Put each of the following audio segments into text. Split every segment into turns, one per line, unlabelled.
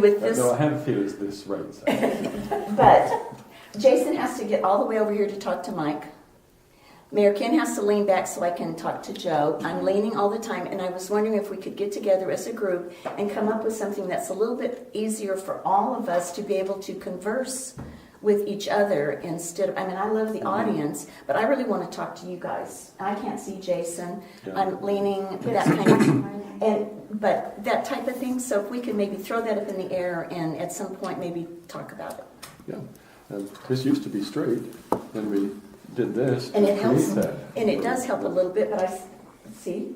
With this,
No, Hempfield is this right side.
but Jason has to get all the way over here to talk to Mike. Mayor Ken has to lean back so I can talk to Joe. I'm leaning all the time, and I was wondering if we could get together as a group and come up with something that's a little bit easier for all of us to be able to converse with each other instead of, I mean, I love the audience, but I really want to talk to you guys. I can't see Jason. I'm leaning that kind of And, but that type of thing, so if we could maybe throw that up in the air and at some point maybe talk about it.
Yeah, Um, this used to be straight, then we did this. to
And it helps,
create that.
and it does help a little bit, but I, s- see?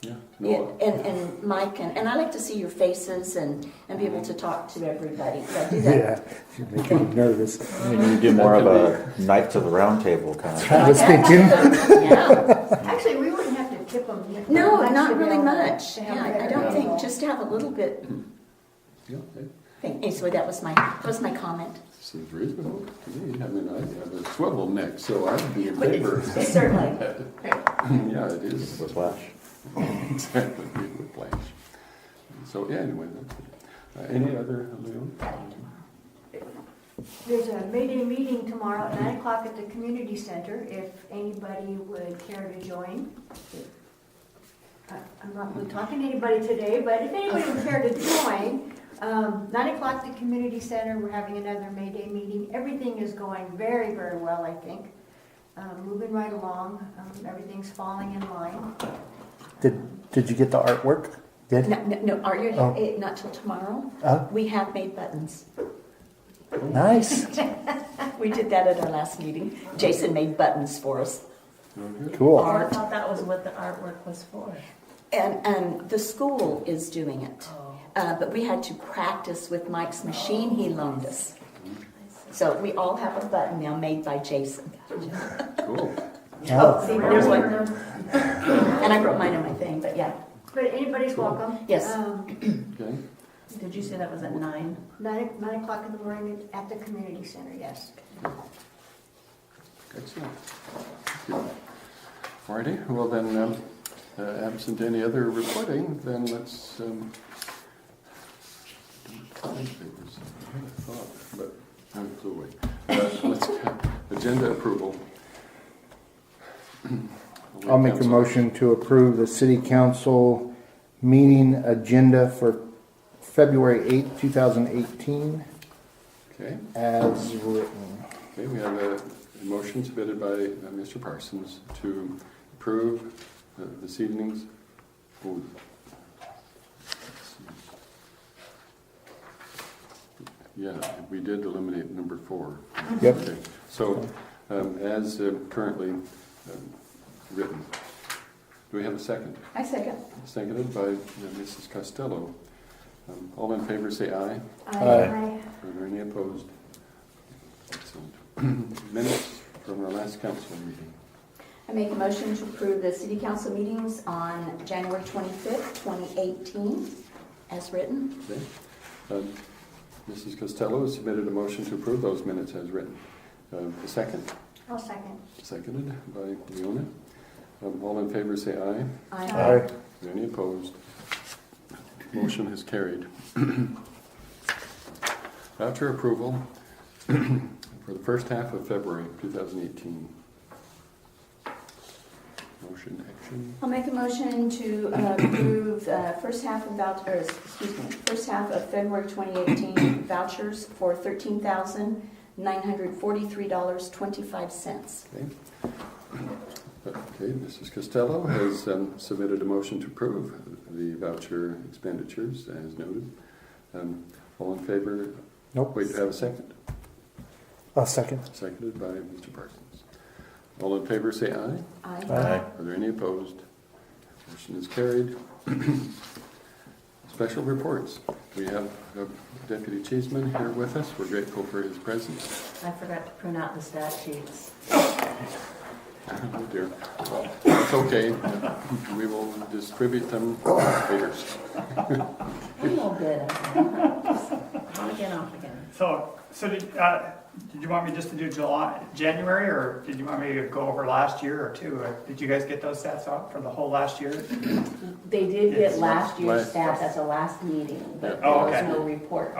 Yeah,
Yeah,
no,
And, and Mike, and, and I like to see your faces and, and be able to talk to everybody, so I do that.
you make me nervous.
You need to do more of a knife to the round table kind of.
I was thinking,
Yeah,
Actually, we wouldn't have to tip them.
no, not really much,
To
yeah,
have
I- I
better
don't think,
people.
just to have a little bit,
yeah, it
thing, And so that was my, that was my comment.
seems reasonable to me. I mean, I have a swivel neck, so I'd be in
But
favor.
it's- Certainly.
Yeah, it is.
Whiplash.
Exactly, it would flash. So, yeah, anyway, that's it. Uh, any other, Leon?
There's a May Day meeting tomorrow at nine o'clock at the community center, if anybody would care to join. I- I'm not really talking to anybody today, but if anybody would care to join, um, nine o'clock at the community center, we're having another May Day meeting. Everything is going very, very well, I think. Um, Moving right along, um, everything's falling in line.
did, did you get the artwork? Did?
No, no, no, are you,
Oh.
eh, not till tomorrow?
Oh.
We have made buttons.
Nice,
We did that at our last meeting. Jason made buttons for us.
cool.
I
Art.
thought that was what the artwork was for.
And, and the school is doing it. Uh, but we had to practice with Mike's machine he loaned us. So we all have a button now made by Jason.
Cool.
Oh,
See, there's one. And I wrote mine on my thing, but yeah.
But anybody's welcome.
Yes.
Um,
Okay,
Did you say that was at nine?
Nine, nine o'clock in the morning at the community center, yes.
excellent. All righty, well then, um, uh, absent any other reporting, then let's, um, I think there was, I had a thought, but, i flew away. Uh, let's, agenda approval.
I'll make a
Council.
motion to approve the city council meeting agenda for February eighth, two thousand eighteen,
Okay.
as written.
Okay, we have a a motion submitted by uh, Mr. Parsons to approve uh, this evening's food. Yeah, we did eliminate number four.
Yep.
Okay, So, um, as uh, currently um, written, do we have a second?
I second.
Seconded by uh, Mrs. Costello. Um, All in favor, say aye.
Aye.
Are there any opposed? Excellent. Minutes from our last council meeting.
I make a motion to approve the city council meetings on January 25th, 2018, as written.
Okay. Um, Mrs. Costello has submitted a motion to approve those minutes as written. Um, A second,
I'll second.
seconded by Leona. Um, All in favor, say aye.
I
Are there any opposed? Motion is carried. After approval for the first half of February 2018. Motion action.
I'll make a motion to uh, approve uh, first half of vouch, or excuse me, first half of February 2018 vouchers for $13,943.25.
Okay, Okay. Mrs. Costello has um, submitted a motion to approve the voucher expenditures as noted. Um, All in favor?
Nope,
Wait, do I have a second?
a second.
Seconded by Mr. Parsons. All in favor, say aye.
Aye.
Aye.
Are there any opposed? Motion is carried. Special reports. We have uh, Deputy Cheeseman here with us. We're grateful for his presence.
I forgot to print out the stat sheets.
Oh dear. Well, It's okay. We will distribute them later.
A little bit. I think.
and off again.
So, so did, uh, did you want me just to do July, January, or did you want me to go over last year or two? Or Did you guys get those stats out for the whole last year?
They did get
Yes.
last year's
Last-
stats at the last meeting, but
Oh,
there was
okay.
no report.